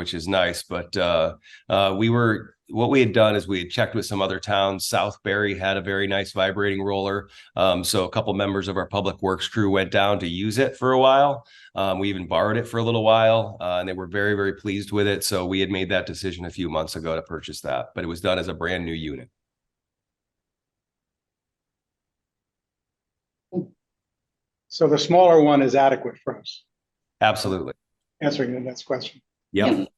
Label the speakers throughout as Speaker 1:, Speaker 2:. Speaker 1: which is nice. But uh, uh, we were what we had done is we had checked with some other towns. Southbury had a very nice vibrating roller, um, so a couple members of our public works crew went down to use it for a while. Um, we even borrowed it for a little while, uh, and they were very very pleased with it. So we had made that decision a few months ago to purchase that, but it was done as a brand new unit.
Speaker 2: So the smaller one is adequate for us,
Speaker 1: Absolutely.
Speaker 2: answering the next question.
Speaker 1: Yep.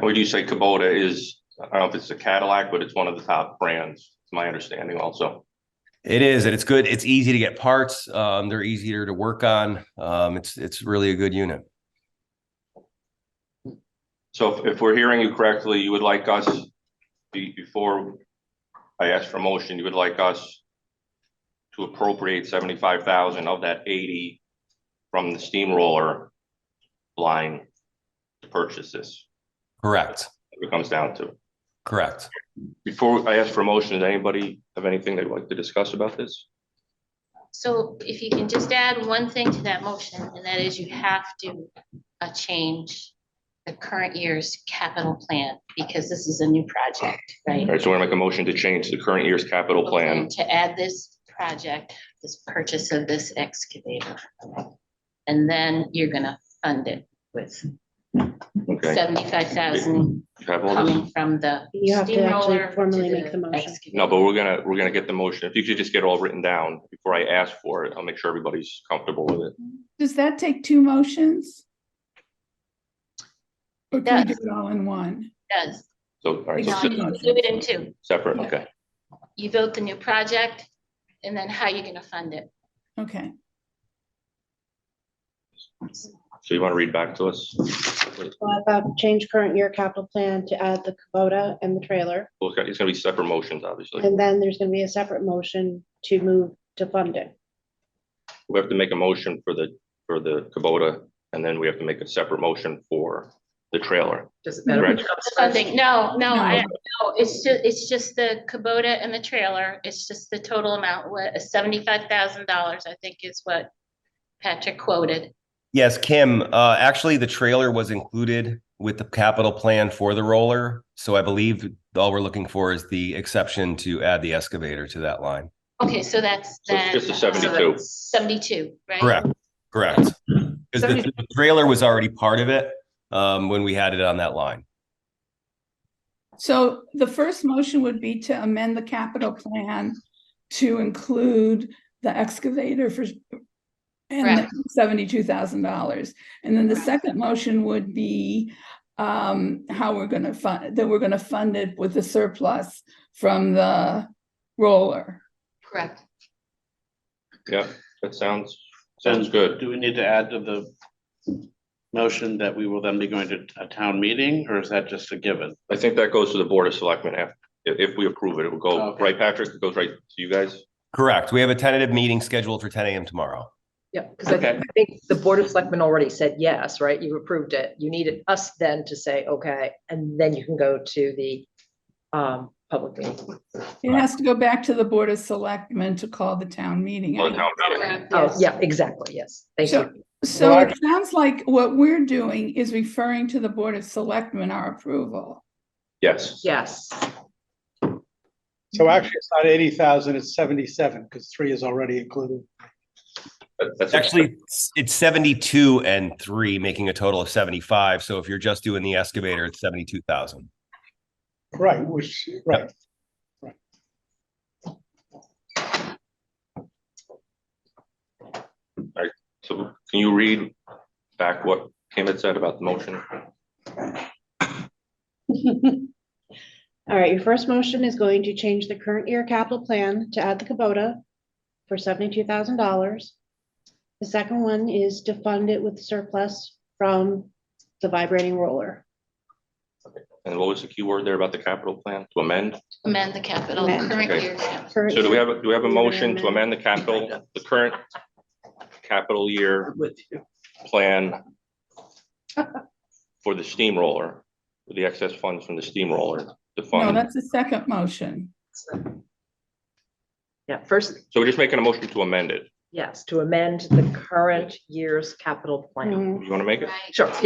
Speaker 3: Would you say Kubota is, I don't know if it's a Cadillac, but it's one of the top brands, It's my understanding also.
Speaker 1: It is, and it's good. It's easy to get parts. Um, they're easier to work on. Um, it's it's really a good unit.
Speaker 3: So if, if we're hearing you correctly, you would like us, be- before I ask for motion, you would like us to appropriate seventy-five thousand of that eighty from the steamroller line to purchase this,
Speaker 1: Correct.
Speaker 3: if it comes down to.
Speaker 1: Correct.
Speaker 3: Before I ask for motion, does anybody have anything they'd like to discuss about this?
Speaker 4: So if you can just add one thing to that motion, and that is you have to uh, change the current year's capital plan, because this is a new project, right?
Speaker 3: All right, so we're gonna make a motion to change the current year's capital plan
Speaker 4: To add this project, this purchase of this excavator. And then you're gonna fund it with
Speaker 3: Okay,
Speaker 4: seventy-five thousand
Speaker 3: you have all this?
Speaker 4: coming from the
Speaker 5: You have to actually
Speaker 4: steamroller. to
Speaker 5: formally make the motion.
Speaker 4: excavator.
Speaker 3: No, but we're gonna, we're gonna get the motion. If you could just get it all written down before I ask for it, I'll make sure everybody's comfortable with it.
Speaker 6: Does that take two motions? Or
Speaker 4: It
Speaker 6: can we
Speaker 4: does.
Speaker 6: do it all in one?
Speaker 4: Does,
Speaker 3: So, all right,
Speaker 4: no,
Speaker 3: so
Speaker 4: you do it in two.
Speaker 3: separate, okay.
Speaker 4: You built the new project, and then how you're gonna fund it.
Speaker 6: Okay,
Speaker 3: So you want to read back to us?
Speaker 5: Well, About change current year capital plan to add the Kubota and the trailer.
Speaker 3: Well, it's got- It's gonna be separate motions, obviously.
Speaker 5: And then there's gonna be a separate motion to move to fund it.
Speaker 3: We have to make a motion for the, for the Kubota, and then we have to make a separate motion for the trailer.
Speaker 7: Does it matter?
Speaker 3: Right.
Speaker 7: which comes
Speaker 4: The
Speaker 7: first?
Speaker 4: Funding, no, no, I,
Speaker 6: No.
Speaker 4: no, it's ju- it's just the Kubota and the trailer, it's just the total amount, what, seventy-five thousand dollars, I think is what Patrick quoted.
Speaker 1: Yes, Kim. Uh, actually, the trailer was included with the capital plan for the roller. So I believe all we're looking for is the exception to add the excavator to that line.
Speaker 4: Okay, so that's
Speaker 3: So it's
Speaker 4: then.
Speaker 3: just a seventy-two.
Speaker 4: Seventy-two, right?
Speaker 1: Correct. Correct. Because the, the trailer was already part of it um, when we had it on that line.
Speaker 6: so the first motion would be to amend the capital plan to include the excavator for and
Speaker 4: Correct.
Speaker 6: seventy-two thousand dollars. And then the
Speaker 4: Correct.
Speaker 6: second motion would be um, how we're gonna fund, that we're gonna fund it with the surplus from the roller.
Speaker 4: Correct.
Speaker 3: Yeah, that sounds, sounds good.
Speaker 8: Do we need to add to the motion that we will then be going to a town meeting, or is that just a given?
Speaker 3: I think that goes to the Board of Selectmen after, if, if we approve it, it will go,
Speaker 8: Okay.
Speaker 3: right, Patrick? It goes right to you guys?
Speaker 1: Correct. We have a tentative meeting scheduled for ten AM tomorrow.
Speaker 7: Yeah, because I
Speaker 3: Okay.
Speaker 7: think- I think the Board of Selectmen already said yes, right? You approved it. You needed us then to say, okay, and then you can go to the um, public meeting.
Speaker 6: It has to go back to the Board of Selectmen to call the town meeting.
Speaker 3: Well, the town meeting.
Speaker 7: Oh,
Speaker 4: Yes.
Speaker 7: yeah, exactly, yes. Thank
Speaker 6: So-
Speaker 7: you.
Speaker 6: So
Speaker 2: Well,
Speaker 6: it sounds like what we're doing is referring to the Board of Selectmen our approval.
Speaker 3: Yes.
Speaker 7: Yes,
Speaker 2: So actually, it's not eighty thousand, it's seventy-seven, because three is already included.
Speaker 3: That- that's-
Speaker 1: Actually, it's seventy-two and three, making a total of seventy-five. So if you're just doing the excavator, it's seventy-two thousand.
Speaker 2: Right, which, right.
Speaker 3: So can you read back what Kim had said about the motion?
Speaker 5: All right, your first motion is going to change the current year capital plan to add the Kubota for seventy-two thousand dollars. The second one is to fund it with surplus from the vibrating roller.
Speaker 3: And what was the key word there about the capital plan to amend?
Speaker 4: Amend the capital,
Speaker 5: Amend.
Speaker 4: current
Speaker 3: Okay.
Speaker 4: year. capital.
Speaker 5: Current
Speaker 3: So do we
Speaker 5: year-
Speaker 3: have, a- do we have a motion to amend the capital, the current capital year
Speaker 7: with you.
Speaker 3: plan for the steamroller, for the excess funds from the steamroller to
Speaker 6: No,
Speaker 3: fund?
Speaker 6: that's the second motion.
Speaker 7: Yeah, first,
Speaker 3: So we're just making a motion to amend it.
Speaker 4: Yes, to amend the current year's capital plan.
Speaker 9: Mhm.
Speaker 7: You want to make it?
Speaker 5: Mm.
Speaker 3: Right.
Speaker 4: Sure.